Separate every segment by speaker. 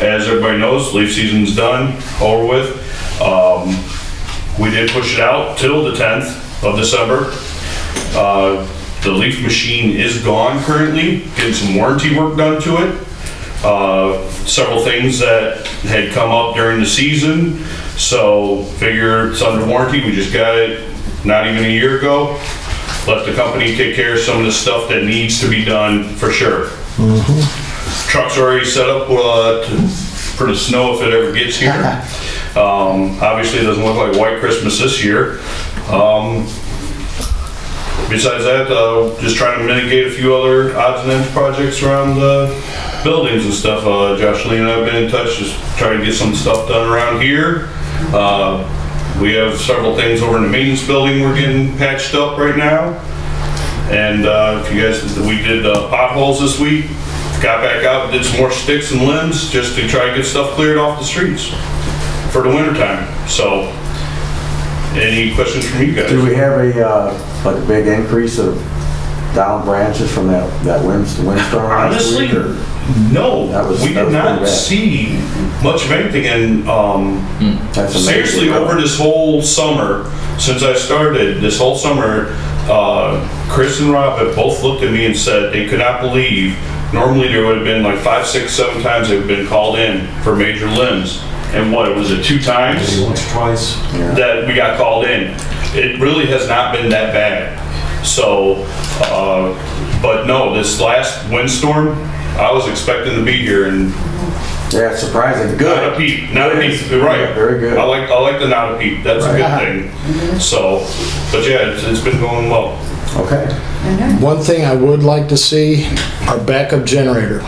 Speaker 1: As everybody knows, leaf season's done, over with. Um, We did push it out till the 10th of December. Uh, The leaf machine is gone currently, getting some warranty work done to it. Uh, Several things that had come up during the season, so figure it's under warranty, we just got it not even a year ago. Let the company take care of some of the stuff that needs to be done for sure. Truck's already set up uh, to- for the snow if it ever gets here. Um, Obviously, it doesn't look like White Christmas this year. Um, Besides that, uh, just trying to mitigate a few other odds and ends projects around the buildings and stuff. Uh, Josh Lee and I have been in touch, just trying to get some stuff done around here. Uh, we have several things over in the maintenance building we're getting patched up right now. And uh, if you guys, we did uh, potholes this week, got back out, did some more sticks and limbs just to try to get stuff cleared off the streets for the winter time. So, any questions from you guys?
Speaker 2: Do we have a, uh, like a big increase of down branches from that, that winds, windstorm last
Speaker 1: Honestly,
Speaker 2: week? or-
Speaker 1: no,
Speaker 2: That was-
Speaker 1: we
Speaker 2: that
Speaker 1: did
Speaker 2: was pretty
Speaker 1: not
Speaker 2: bad.
Speaker 1: see much of anything, and um,
Speaker 2: That's amazing.
Speaker 1: seriously, over this whole summer, since I started, this whole summer, uh, Chris and Rob have both looked at me and said they could not believe, normally there would have been like five, six, seven times they've been called in for major limbs, and what, was it two times?
Speaker 3: Maybe once or twice.
Speaker 1: that we got called in. It really has not been that bad. So, uh, but no, this last windstorm, I was expecting to be here and
Speaker 2: Yeah, it's surprising,
Speaker 1: not a
Speaker 2: good.
Speaker 1: peep, not a peep, you're right.
Speaker 2: Yeah, very good.
Speaker 1: I like, I like the not a peep, that's a good thing. So, but yeah, it's, it's been going well.
Speaker 2: Okay.
Speaker 4: One thing I would like to see, our backup generator.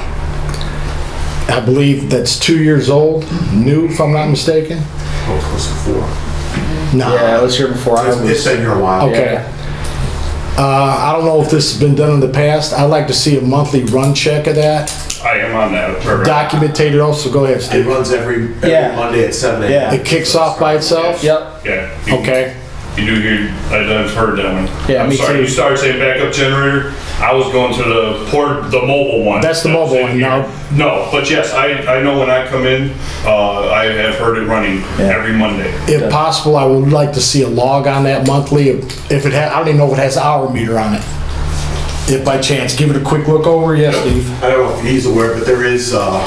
Speaker 4: I believe that's two years old, new if I'm not mistaken.
Speaker 3: Oh, close to four.
Speaker 4: No,
Speaker 5: Yeah, I was here before I
Speaker 3: It's
Speaker 5: was.
Speaker 3: been here a while.
Speaker 4: okay. Uh, I don't know if this has been done in the past. I'd like to see a monthly run check of that,
Speaker 1: I am on that. right.
Speaker 4: documented also, go ahead,
Speaker 3: It
Speaker 4: Steve.
Speaker 3: runs every, every
Speaker 5: Yeah.
Speaker 3: Monday at seven
Speaker 5: Yeah.
Speaker 3: AM.
Speaker 4: It kicks off by itself?
Speaker 5: Yep.
Speaker 1: Yeah. you-
Speaker 4: Okay,
Speaker 1: You do hear, I- I've heard that one.
Speaker 5: Yeah,
Speaker 1: I'm
Speaker 5: me
Speaker 1: sorry,
Speaker 5: too.
Speaker 1: You started saying backup generator, I was going to the port, the mobile one.
Speaker 4: That's the
Speaker 1: That was
Speaker 4: mobile
Speaker 1: in
Speaker 4: one,
Speaker 1: here.
Speaker 4: no.
Speaker 1: No, but yes, I, I know when I come in, uh, I have heard it running
Speaker 5: Yeah.
Speaker 1: every Monday.
Speaker 4: if possible, I would like to see a log on that monthly, if if it had, I don't even know if it has hour meter on it. If by chance, give it a quick look over, yes, Steve?
Speaker 3: I don't know if he's aware, but there is, uh,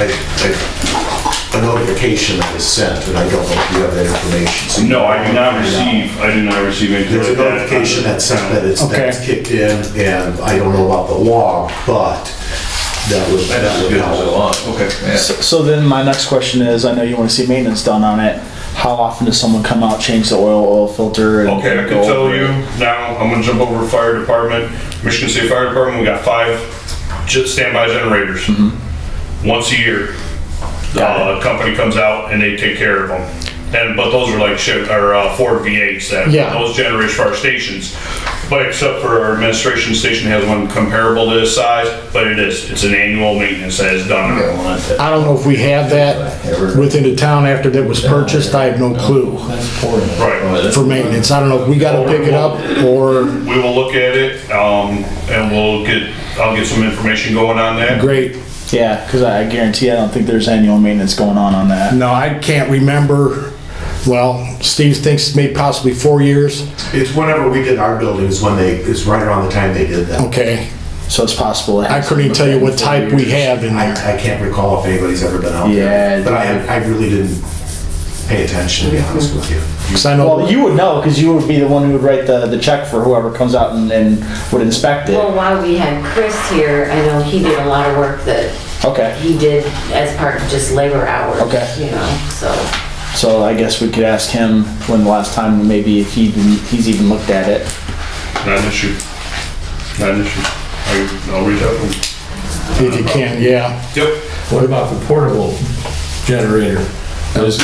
Speaker 3: a, a- a notification that is sent, and I don't know if you have that information. So you-
Speaker 1: No, I do not receive, I do not receive anything
Speaker 3: There's a
Speaker 1: like that.
Speaker 3: notification that's sent that it's,
Speaker 4: Okay.
Speaker 3: that's kicked in, and I don't know about the log, but that would, that would help.
Speaker 1: Okay.
Speaker 5: So, so then my next question is, I know you want to see maintenance done on it. How often does someone come out, change the oil, oil filter? And
Speaker 1: Okay, I
Speaker 5: go
Speaker 1: can tell
Speaker 5: over
Speaker 1: you
Speaker 5: it?
Speaker 1: now, I'm gonna jump over to fire department, Michigan State Fire Department, we got five ge- standby generators. Once a year,
Speaker 5: Mm-hmm. Got
Speaker 1: uh, a company comes out and they take care of them. And, but those are like shit, or uh, Ford V8s that,
Speaker 4: Yeah.
Speaker 1: those generators for our stations. But except for our administration station has one comparable to this size, but it is, it's an annual maintenance that is done on it.
Speaker 4: I don't know if we have that within the town after that was purchased, I have no clue
Speaker 1: Right.
Speaker 4: for maintenance. I don't know if we gotta pick it up or,
Speaker 1: We will look at it, um, and we'll get, I'll get some information going on that.
Speaker 4: great.
Speaker 5: Yeah, because I I guarantee I don't think there's annual maintenance going on on that.
Speaker 4: No, I can't remember, well, Steve thinks maybe possibly four years,
Speaker 3: It's whenever we did our building is when they, is right around the time they did that.
Speaker 4: okay.
Speaker 5: So it's possible. it
Speaker 4: I couldn't even
Speaker 5: hasn't
Speaker 4: tell you
Speaker 5: been
Speaker 4: what
Speaker 5: four
Speaker 4: type we
Speaker 5: years.
Speaker 4: have in there.
Speaker 3: I, I can't recall if anybody's ever been out there.
Speaker 5: Yeah.
Speaker 3: But I, I really didn't pay attention, to be honest with you.
Speaker 4: 'Cause I know,
Speaker 5: Well, you would know because you would be the one who would write the, the check for whoever comes out and, and would inspect
Speaker 6: Well,
Speaker 5: it.
Speaker 6: while we had Chris here, I know he did a lot of work that
Speaker 5: Okay,
Speaker 6: he did as part of just labor hours.
Speaker 5: Okay.
Speaker 6: You know, so,
Speaker 5: so I guess we could ask him when the last time maybe if he even, he's even looked at it.
Speaker 1: Not an issue. Not an issue. I, I'll reach out to them.
Speaker 4: if you can, yeah.
Speaker 1: Yep.
Speaker 7: What about the portable generator? Is-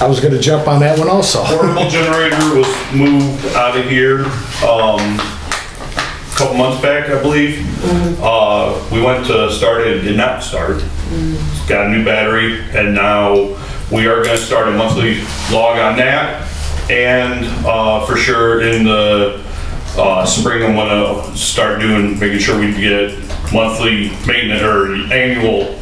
Speaker 4: I was gonna jump on that one also.
Speaker 1: Portable generator was moved out of here, um, a couple months back, I believe. Uh, we went to start it, did not start. Got a new battery and now we are gonna start a monthly log on that. And, uh, for sure in the, uh, spring, I'm gonna start doing, making sure we get monthly maintenance or annual